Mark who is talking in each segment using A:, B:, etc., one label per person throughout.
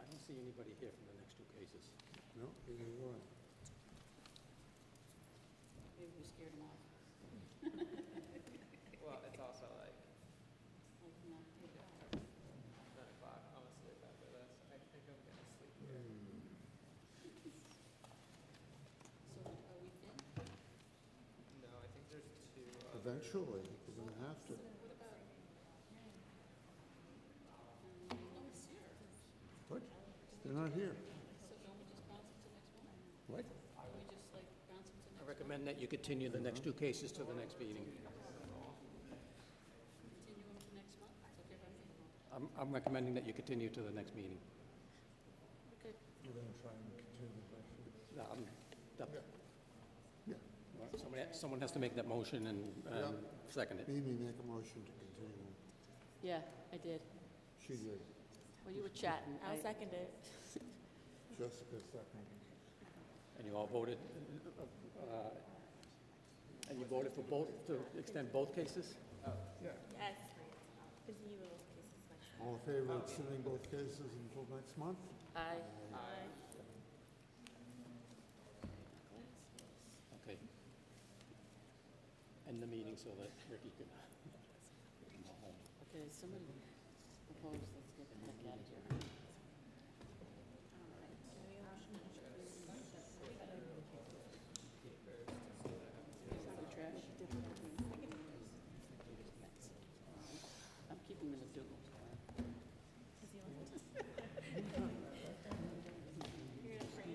A: anybody here from the next two cases.
B: No, neither do I.
C: Maybe we scared him off.
D: Well, it's also like
C: Like, not take it off.
D: nine o'clock, I'm asleep after this, I think I'm gonna sleep here.
C: So are we thin?
D: No, I think there's two uh, other.
B: Eventually, we're gonna have to.
C: So then what about? Um, No, it's here.
B: What? They're not here.
C: So don't we just bounce it to next one?
B: What?
C: Or we just like bounce it to
A: I
C: next,
A: recommend that you continue the next two cases to the next meeting.
C: continue them to next month? It's okay if I'm thinking.
A: I'm, I'm recommending that you continue to the next meeting.
C: Okay.
B: We're gonna try and continue the question.
A: No, I'm- that-
B: Yeah,
A: Somebody, someone has to make that motion and, um, second it.
B: Mimi make a motion to continue.
C: Yeah, I did.
B: She did.
C: Well, you were chatting. I'll second it.
B: Jessica seconded.
A: And you all voted, uh, and you voted for both, to extend both cases?
E: Yes. Because you will kiss his wife.
B: All in favor of sending both cases until next month?
C: Aye.
A: Okay. End the meeting so that Ricky can can go home.
C: Okay, somebody proposed, let's get the heck out of here. The trash? I'm keeping them in the doodle.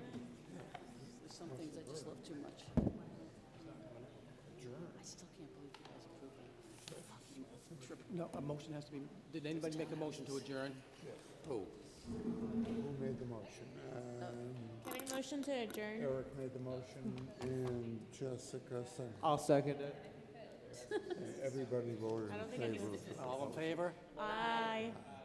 C: There's some things I just love too much. I still can't believe you guys approved that. Fucking trip
A: No, a motion has to be, did anybody make a motion to adjourn? Who?
B: Who made the motion? Um,
E: Oh, Can I motion to adjourn?
B: Eric made the motion and Jessica seconded.
A: I'll second it.
B: Everybody voted
E: I
B: in
E: don't think I
B: favor.
E: can-
A: All in favor?
E: Aye.